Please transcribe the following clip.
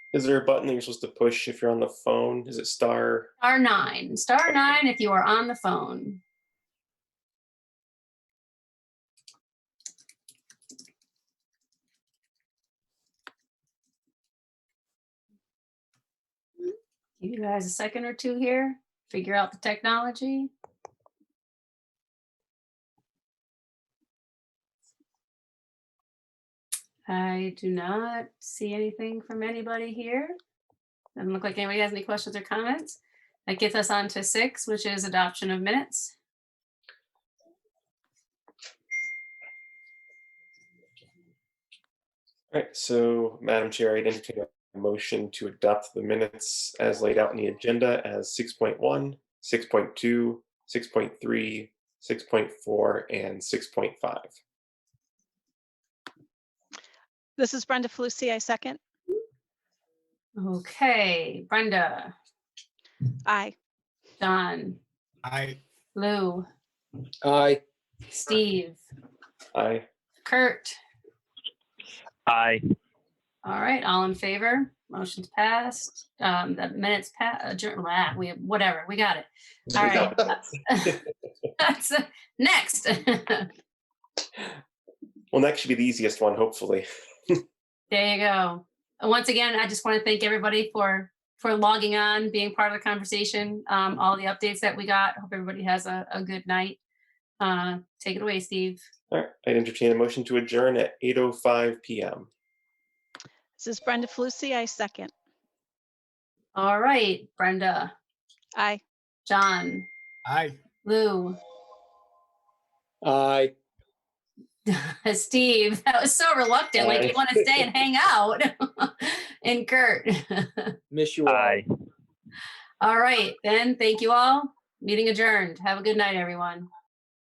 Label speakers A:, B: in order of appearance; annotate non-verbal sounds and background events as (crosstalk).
A: Is there a button that you're supposed to push if you're on the phone? Is it star?
B: Star nine, star nine if you are on the phone. Give you guys a second or two here, figure out the technology. I do not see anything from anybody here. Doesn't look like anybody has any questions or comments. That gets us on to six, which is adoption of minutes.
A: All right, so Madam Chair, I'd entertain a motion to adopt the minutes as laid out in the agenda as 6.1, 6.2, 6.3, 6.4, and 6.5.
C: This is Brenda Felucci. I second.
B: Okay, Brenda,
C: Aye.
B: John,
D: I,
B: Lou,
E: Aye.
B: Steve,
A: Aye.
B: Kurt.
F: Aye.
B: All right, all in favor? Motion's passed. Um, the minutes pa- adjourn, blah, we, whatever, we got it. All right. (laughs) That's, uh, next. (laughs)
A: Well, next should be the easiest one, hopefully.
B: There you go. And Once again, I just want to thank everybody for, for logging on, being part of the conversation, um, all the updates that we got. Hope everybody has a, a good night. Uh, take it away, Steve.
A: All right, I'd entertain a motion to adjourn at 8:05 PM.
C: This is Brenda Felucci. I second.
B: All right, Brenda,
C: Aye.
B: John,
D: I,
B: Lou, (laughs)
E: Aye.
B: Steve, that was so reluctant, like you
A: Aye.
B: want to stay and hang out. (laughs) And Kurt. (laughs)
E: Miss you all.
F: Aye.
B: All right, then, thank you all. Meeting adjourned. Have a good night, everyone.